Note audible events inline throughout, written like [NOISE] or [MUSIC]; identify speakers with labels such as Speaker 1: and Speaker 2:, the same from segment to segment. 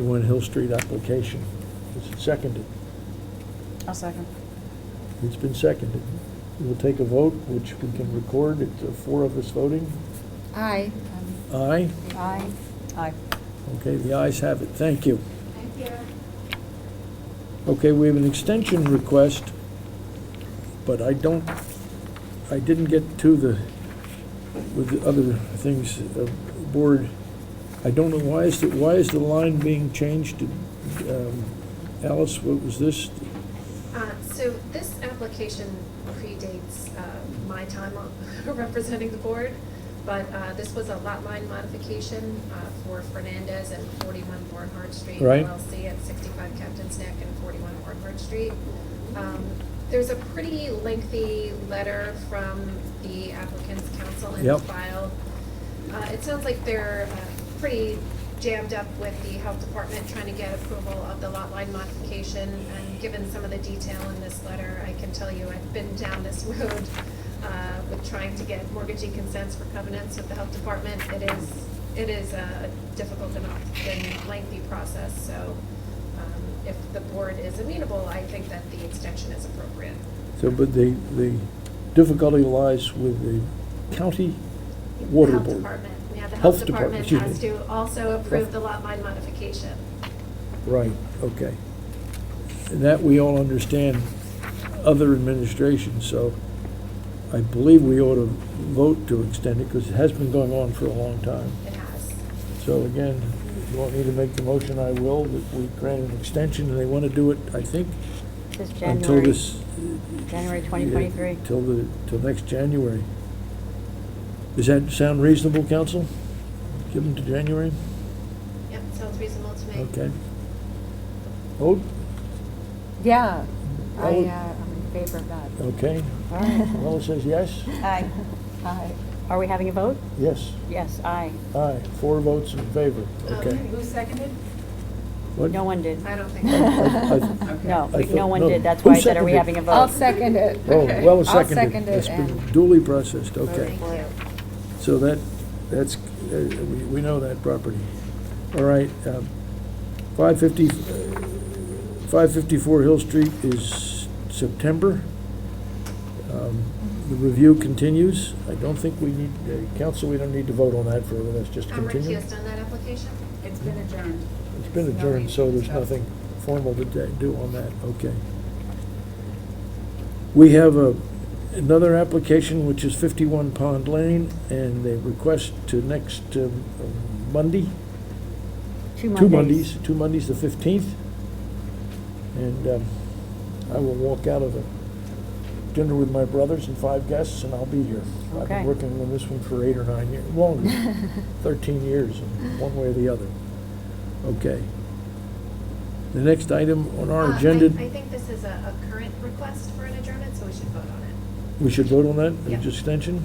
Speaker 1: One Hill Street application. It's seconded.
Speaker 2: I'll second.
Speaker 1: It's been seconded. We'll take a vote, which we can record. It's uh, four of us voting.
Speaker 3: Aye.
Speaker 1: Aye?
Speaker 2: Aye. Aye.
Speaker 1: Okay, the ayes have it. Thank you.
Speaker 3: Thank you.
Speaker 1: Okay, we have an extension request, but I don't, I didn't get to the, with the other things, uh, board. I don't know, why is, the why is the line being changed to, um, Alice, what was this?
Speaker 4: Uh, So this application predates uh, my time on- [LAUGHS] representing the board, but uh, this was a lot line modification uh, for Fernandez and 41 Barnhart Street
Speaker 1: Right.
Speaker 4: LLC at 65 Captain's Neck and 41 Barnhart Street. Um, There's a pretty lengthy letter from the applicant's counsel in the
Speaker 1: Yep.
Speaker 4: file. Uh, It sounds like they're uh, pretty jammed up with the health department trying to get approval of the lot line modification. And given some of the detail in this letter, I can tell you I've been down this [LAUGHS] road uh, with trying to get mortgagee consents for covenants with the health department. It is, it is a difficult and often lengthy process, so um, if the board is amenable, I think that the extension is appropriate.
Speaker 1: So, but the, the difficulty lies with the county water
Speaker 4: Health
Speaker 1: board.
Speaker 4: Department. Yeah, the
Speaker 1: Health
Speaker 4: health
Speaker 1: Department,
Speaker 4: department has
Speaker 1: excuse me.
Speaker 4: to also approve the lot line modification.
Speaker 1: Right, okay. And that we all understand, other administrations, so I believe we ought to vote to extend it, because it has been going on for a long time.
Speaker 4: It has.
Speaker 1: So again, if you want me to make the motion, I will, that we grant an extension, and they want to do it, I think,
Speaker 2: This
Speaker 1: until
Speaker 2: January,
Speaker 1: this...
Speaker 2: January 2023.
Speaker 1: Till the, till next January. Does that sound reasonable, counsel? Give them to January?
Speaker 4: Yep, sounds reasonable to me.
Speaker 1: Okay. Vote?
Speaker 3: Yeah, I,
Speaker 1: Vote?
Speaker 3: uh, I'm in favor of that.
Speaker 1: Okay.
Speaker 2: All right.
Speaker 1: Well, it says yes?
Speaker 2: Aye.
Speaker 3: [LAUGHS] Aye.
Speaker 2: Are we having a vote?
Speaker 1: Yes,
Speaker 2: Yes, aye.
Speaker 1: aye, four votes in favor,
Speaker 3: Oh,
Speaker 1: okay.
Speaker 4: Okay.
Speaker 5: Who seconded?
Speaker 1: What?
Speaker 2: No one did.
Speaker 4: Um, I don't
Speaker 1: [LAUGHS]
Speaker 4: think.
Speaker 1: I- I-
Speaker 2: No,
Speaker 1: I thought-
Speaker 2: no one
Speaker 1: no.
Speaker 2: did. That's
Speaker 1: Who
Speaker 2: why I said, are we
Speaker 1: seconded?
Speaker 2: having a vote?
Speaker 3: I'll second it.
Speaker 1: Oh, well, it's
Speaker 3: I'll
Speaker 1: seconded.
Speaker 3: second it
Speaker 1: It's been
Speaker 3: and-
Speaker 1: duly processed, okay.
Speaker 4: Thank you. Um,
Speaker 1: So that, that's, uh, we we know that property. All right, um, 550, uh, 554 Hill Street is September. Um, The review continues. I don't think we need, uh, council, we don't need to vote on that for, that's just
Speaker 4: I'm
Speaker 1: continue.
Speaker 4: recused on that application.
Speaker 5: It's been adjourned.
Speaker 1: It's been adjourned, so there's nothing formal to da- do on that, okay. We have a, another application, which is 51 Pond Lane, and they request to next um, Monday, two Mondays, two Mondays, the 15th. And um, I will walk out of a dinner with my brothers and five guests, and I'll be here. I've been
Speaker 2: Okay.
Speaker 1: working on this one for eight or nine years, longer, 13 years, in one way or the other. Okay. The next item on
Speaker 4: Uh,
Speaker 1: our
Speaker 4: I-
Speaker 1: agenda,
Speaker 4: I think this is a, a current request for an adjournment, so we should vote on it.
Speaker 1: we should vote on that,
Speaker 4: Yeah.
Speaker 1: the extension?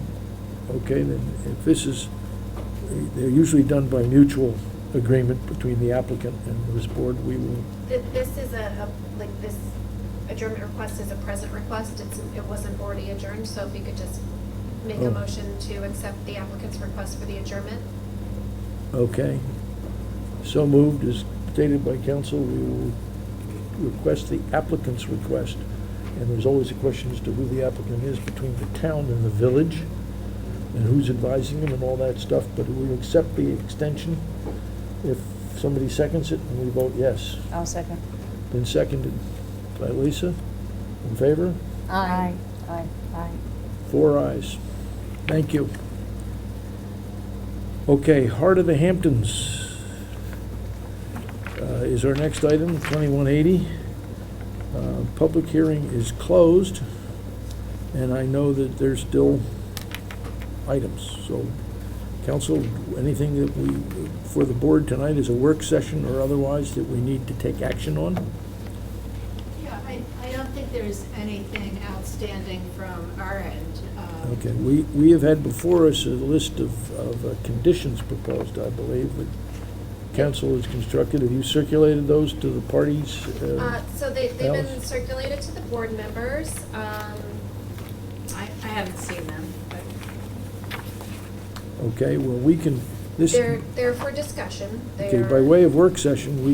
Speaker 1: Okay, then, if this is, they're usually done by mutual agreement between the applicant and this board, we will
Speaker 4: Th- This is a, a- like, this adjournment request is a present request. It's, it wasn't already adjourned, so if we could just make
Speaker 1: Oh.
Speaker 4: a motion to accept the applicant's request for the adjournment.
Speaker 1: Okay. So moved, as stated by council, we will request the applicant's request. And there's always a question as to who the applicant is between the town and the village, and who's advising them and all that stuff, but we accept the extension if somebody seconds it and we vote yes.
Speaker 2: I'll second.
Speaker 1: Been seconded by Lisa. In favor?
Speaker 3: Aye.
Speaker 2: Aye, aye.
Speaker 1: Four ayes. Thank you. Okay, Heart of the Hamptons uh, is our next item, 2180. Uh, Public hearing is closed, and I know that there's still items. So, council, anything that we, for the board tonight is a work session or otherwise that we need to take action on?
Speaker 6: Yeah, I, I don't think there's anything outstanding from our end. Um,
Speaker 1: Okay, we, we have had before us a list of, of uh, conditions proposed, I believe, that council has constructed. Have you circulated those to the parties? uh,
Speaker 4: Uh, so they, they've been
Speaker 1: Alice?
Speaker 4: circulated to the board members. Um,
Speaker 6: I, I haven't seen them, but
Speaker 1: Okay, well, we can, this,
Speaker 4: they're,
Speaker 1: okay,
Speaker 4: Uh, they're for discussion.
Speaker 1: by
Speaker 4: They're-
Speaker 1: way of work session, we